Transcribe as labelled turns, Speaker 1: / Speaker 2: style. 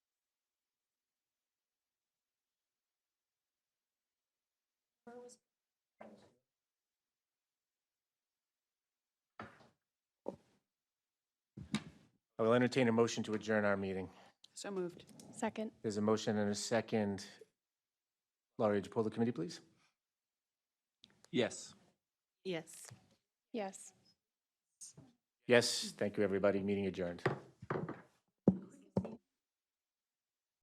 Speaker 1: I will entertain a motion to adjourn our meeting.
Speaker 2: So moved.
Speaker 3: Second.
Speaker 1: There's a motion and a second. Laurie, would you pull the committee, please?
Speaker 4: Yes.
Speaker 2: Yes.
Speaker 3: Yes.
Speaker 1: Yes, thank you, everybody. Meeting adjourned.